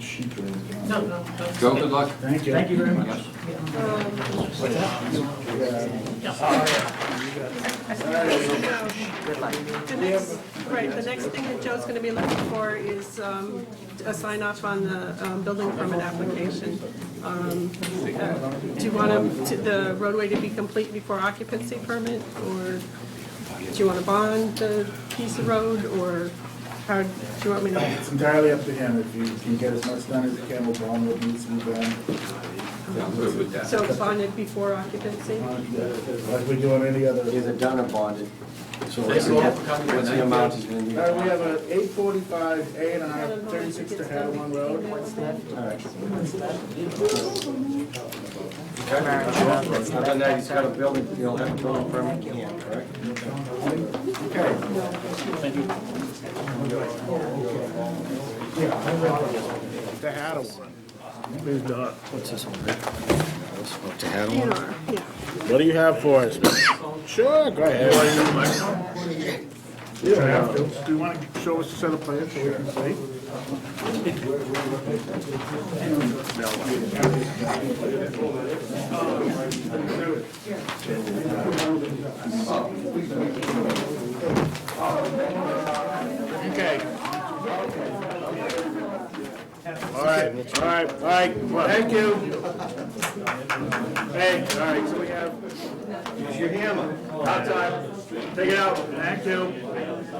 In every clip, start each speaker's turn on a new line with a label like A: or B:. A: sheet or anything.
B: No, no, no.
C: Joe, good luck.
A: Thank you.
D: Thank you very much.
C: Yes.
B: The next, right, the next thing that Joe's gonna be looking for is um, a sign off on the um, building permit application. Um, uh, Do you want him to- the roadway to be complete before occupancy permit, or do you want to bond the piece of road, or how, do you want me to?
A: It's entirely up to him, if you can get as much done as you can, we'll bond what needs to be done.
C: Yeah, I'm good with that.
B: So bonded before occupancy?
A: uh, Like we do on any other.
E: Either done or bonded. So what's
C: Thank
E: the,
C: you all for coming
E: what's the
C: tonight.
E: amount he's gonna
A: All
E: need?
A: right, we
E: All
A: have a eight forty-five A and
B: I
A: R,
B: don't know if it
A: Uh, thirty-six to
B: gets done.
A: Hadawan Road.
E: right. Other than that, he's got a building, he'll have a building permit in hand, correct?
A: To Hadawan.
D: Please not. What's this one?
E: Up to Hadawan.
B: DNR, yeah.
A: What do you have for us? Sure, go ahead. You don't have to. Do you want to show us a set of plans so we can see? Okay. All right, all right, all right, thank you. Hey, all right, so we have, use your hammer, hot time, take it out, thank you.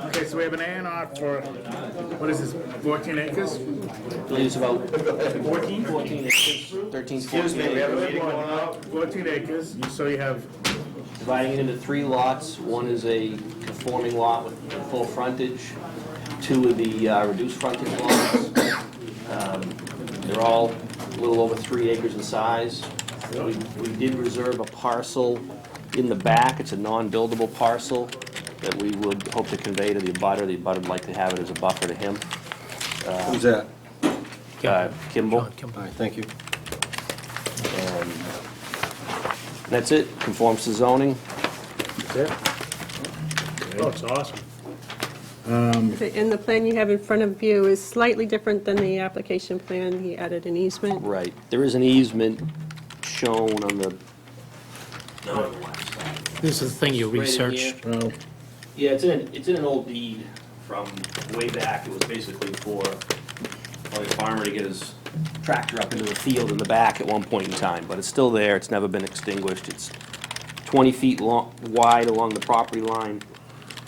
A: Okay, so we have an A and R for, what is this, fourteen acres?
F: It's about
A: Fourteen?
F: 14 acres, 13,
A: Excuse me,
F: 14
A: we have a
F: acres.
A: meeting going on. Fourteen acres, so you have,
F: Dividing it into three lots. One is a conforming lot with full frontage. Two of the uh, reduced frontage lots. Um, They're all a little over three acres in size. We we did reserve a parcel in the back. It's a non-buildable parcel that we would hope to convey to the abutter. The abutter would like to have it as a buffer to him.
E: Who's that?
F: Uh, Kimball.
E: All right, thank you.
F: That's it. Conforms to zoning.
D: Oh, it's awesome.
B: The- And the plan you have in front of you is slightly different than the application plan. He added an easement.
F: Right, there is an easement shown on the.
G: This is the thing you
F: Right in
G: researched.
F: here. Yeah, it's in, it's in an old deed from way back, it was basically for, like, a farmer to get his tractor up into the field in the back at one point in time, but it's still there, it's never been extinguished, it's twenty feet long, wide along the property line,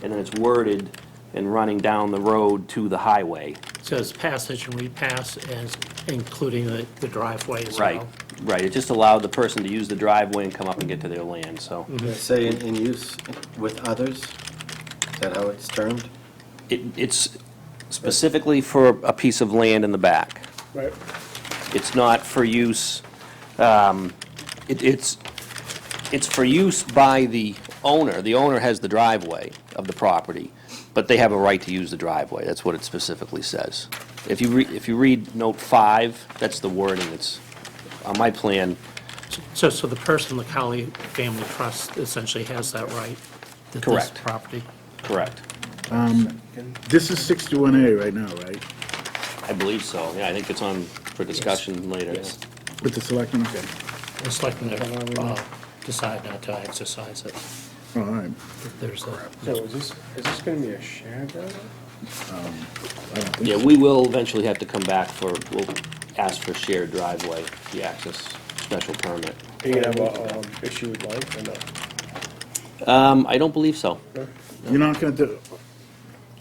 F: and then it's worded and running down the road to the highway.
G: So it's passage and repass, as including the the driveway as well.
F: Right, right, it just allowed the person to use the driveway and come up and get to their land, so.
E: Say in, in use with others? Is that how it's termed?
F: It, it's specifically for a piece of land in the back.
A: right,
F: It's not for use, um, it, it's, it's for use by the owner. The owner has the driveway of the property, but they have a right to use the driveway. That's what it specifically says. If you re, if you read note five, that's the wording that's on my plan.
G: So, so the person, the Colley Family Trust essentially has that right? to this
F: Correct.
G: property?
F: Correct.
A: this is sixty-one A right now, right?
F: I believe so. Yeah, I think it's on for discussion later.
G: Yes.
A: With the selectmen, okay,
G: The selectmen uh, decide not to exercise it.
A: all right,
G: There's a,
D: So is this, is this gonna be a shared driveway?
A: Uh,
F: Yeah, we will eventually have to come back for, we'll ask for shared driveway, the access special permit.
D: Are you gonna have a, um, issue with life or not?
F: Um, I don't believe so.
A: you're not gonna do,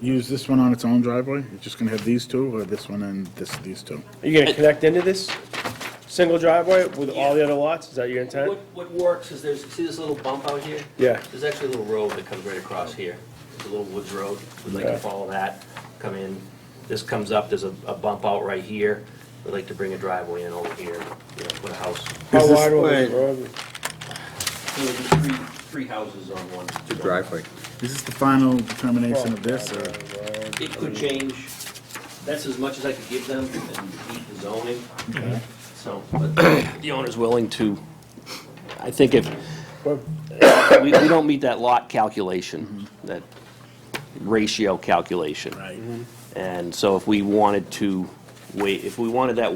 A: use this one on its own driveway? You're just gonna have these two, or this one and this, these two?
D: Are you gonna connect into this single driveway with all the other lots? Is that your
F: What,
D: intent?
F: what works is there's, see this little bump out here?
D: Yeah.
F: There's actually a little road that comes right across here. It's a little woods road. We'd like to
D: Yeah.
F: follow that, come in. This comes up, there's a, a bump out right here. We'd like to bring a driveway in over here, you know, put a house.
D: How
E: Is this-
D: wide will this
E: wait.
D: road be?
F: So there'd be three, three houses on one.
E: Driveway.
A: Is this the final determination of this, or?
F: It could change. That's as much as I could give them and meet the zoning. So, but the owner's willing to, I think if, we, we don't meet that lot calculation, that ratio calculation.
A: Right.
F: And so if we wanted to wait, if we wanted that